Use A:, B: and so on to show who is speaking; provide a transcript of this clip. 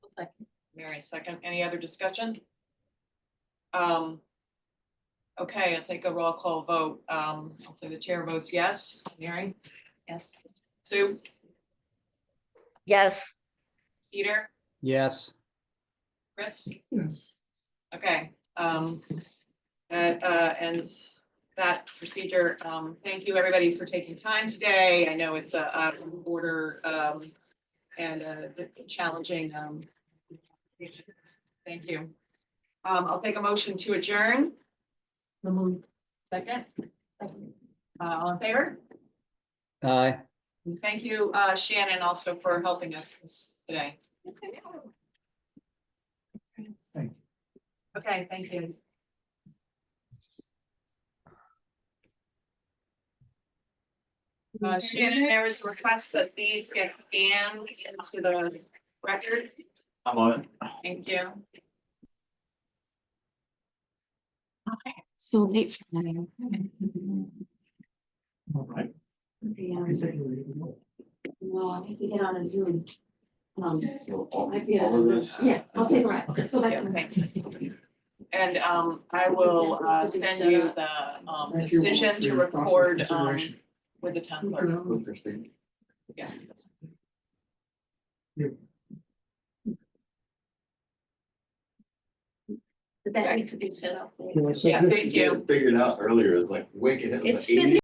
A: I second. Any other discussion? Um. Okay, I'll take a roll call vote. Um, hopefully the chair votes yes. Mary,
B: Yes.
A: Sue,
B: Yes.
A: Peter,
C: Yes,
A: Chris? Yes. Okay, um, that, uh, ends that procedure. Um, thank you, everybody, for taking time today. I know it's a, out of order, um, and a challenging, um, thank you. Um, I'll take a motion to adjourn. Second? Uh, all in favor?
C: aye.
A: Thank you, uh, Shannon, also for helping us this- today. Okay, thank you. Uh, Shannon, there was a request that these get scanned into the record.
D: I'm on it.
A: Thank you.
E: So late for me.
D: All right.
E: Well, I think we get on a Zoom. Um,
D: So all-
E: I did,
D: all of this?
E: yeah, I'll take a ride. Let's go back.
A: Yeah, thanks. And, um, I will, uh, send you the, um, decision to record, um, with the town clerk.
D: Interesting.
A: Yeah.
B: Did that need to be set up?
A: Yeah, thank you.
D: Figured out earlier, it's like wicked. it was
B: It's
D: like
B: been
D: 80